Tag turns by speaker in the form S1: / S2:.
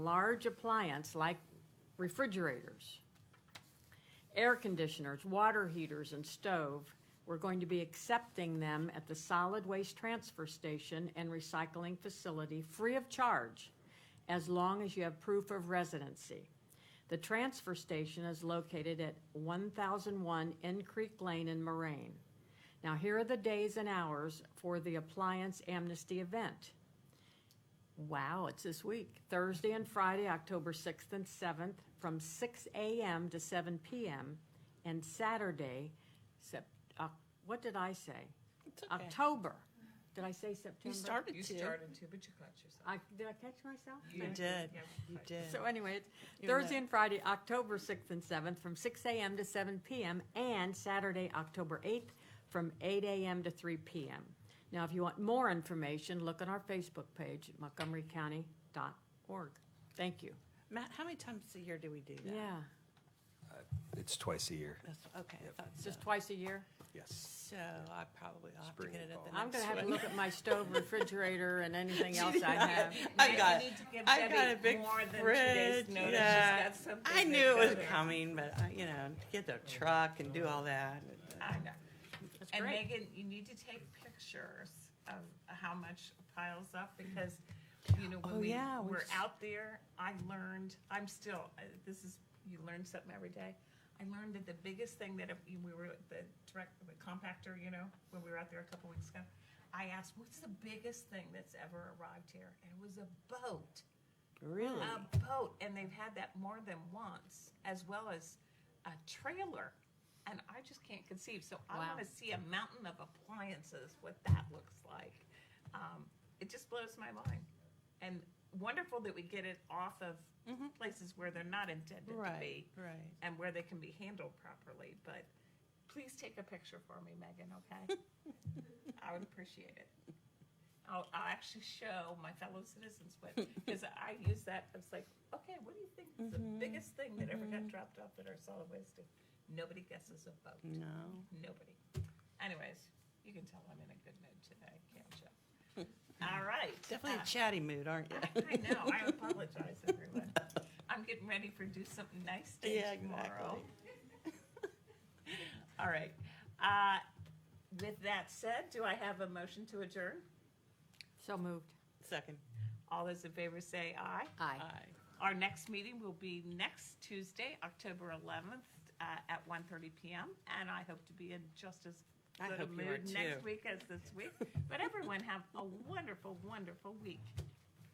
S1: large appliance like refrigerators, air conditioners, water heaters, and stove, we're going to be accepting them at the solid waste transfer station and recycling facility free of charge as long as you have proof of residency. The transfer station is located at 1001 End Creek Lane in Moraine. Now, here are the days and hours for the appliance amnesty event. Wow, it's this week. Thursday and Friday, October 6th and 7th, from 6 a.m. to 7 p.m. And Saturday, Sep- uh, what did I say? October. Did I say September?
S2: You started
S3: You
S2: to.
S3: started to, but you caught yourself.
S1: I, did I catch myself?
S2: You
S1: Thank
S2: did.
S3: Yeah,
S2: You
S3: caught
S2: did.
S1: So anyway, it's
S2: You're
S1: Thursday
S2: lit.
S1: and Friday, October 6th and 7th, from 6 a.m. to 7 p.m., and Saturday, October 8th, from 8 a.m. to 3 p.m. Now, if you want more information, look on our Facebook page, montgomerycounty.org. Thank you.
S2: Matt, how many times a year do we do that?
S1: Yeah,
S4: It's twice a year,
S2: That's, okay, I
S4: Yep.
S2: thought so.
S1: just twice a year.
S4: yes.
S2: So I probably, I'll have to
S4: Spring
S2: get it at the
S4: call.
S2: next
S1: I'm gonna have to
S2: one.
S1: look at my stove, refrigerator, and anything else I have.
S2: I've got,
S3: You need to give
S2: I've got
S3: Debbie
S2: a big
S3: more than two days'
S2: fridge,
S3: notice. She's
S2: yeah.
S3: got something
S2: I
S3: big
S2: knew it was
S3: over.
S2: coming, but I, you know, to get the truck and do all that.
S3: I know.
S1: That's
S3: And
S1: great.
S3: Megan, you need to take pictures of how much piles up because, you know,
S2: Mm-hmm. Oh,
S3: when we
S2: yeah, we
S3: were
S2: s-
S3: out there, I learned, I'm still, uh, this is, you learn something every day. I learned that the biggest thing that if you- we were at the direct, the compactor, you know, when we were out there a couple weeks ago, I asked, what's the biggest thing that's ever arrived here? And it was a boat.
S2: Really?
S3: A boat, and they've had that more than once, as well as a trailer. And I just can't conceive. So I
S1: Wow.
S3: want to see a mountain of appliances, what that looks like. Um, it just blows my mind. And wonderful that we get it off of places where they're not intended to
S2: Mm-hmm. Right,
S3: be
S2: right.
S3: and where they can be handled properly. But please take a picture for me, Megan, okay? I would appreciate it. I'll, I'll actually show my fellow citizens what, because I use that, I was like, okay, what do you think is the
S2: Mm-hmm.
S3: biggest thing that ever got dropped off at our solid waste? And Nobody guesses a boat.
S2: No.
S3: Nobody. Anyways, you can tell I'm in a good mood today, can't you? All right.
S2: Definitely
S3: Uh,
S2: a chatty mood, aren't you?
S3: I know. I apologize, everyone. I'm getting ready for do something nice day
S2: Yeah,
S3: tomorrow.
S2: exactly.
S3: All right. Uh, with that said, do I have a motion to adjourn?
S1: So moved.
S2: Second.
S3: All those in favor say aye.
S1: Aye.
S2: Aye.
S3: Our next meeting will be next Tuesday, October 11th uh, at 1:30 p.m. And I hope to be in just as
S2: I
S3: good a
S2: hope you are
S3: mood next
S2: too.
S3: week as this week. But everyone have a wonderful, wonderful week.